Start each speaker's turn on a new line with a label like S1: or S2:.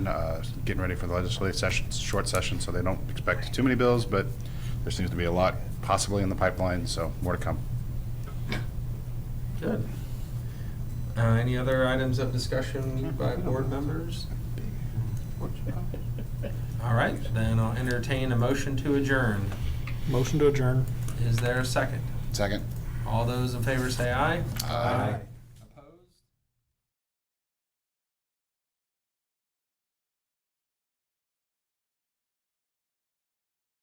S1: uh, getting ready for the legislative session, it's a short session, so they don't expect too many bills, but there seems to be a lot possibly in the pipeline, so more to come.
S2: Good. Uh, any other items of discussion by board members? All right, then I'll entertain a motion to adjourn.
S3: Motion to adjourn.
S2: Is there a second?
S1: Second?
S2: All those in favor say aye.
S1: Aye.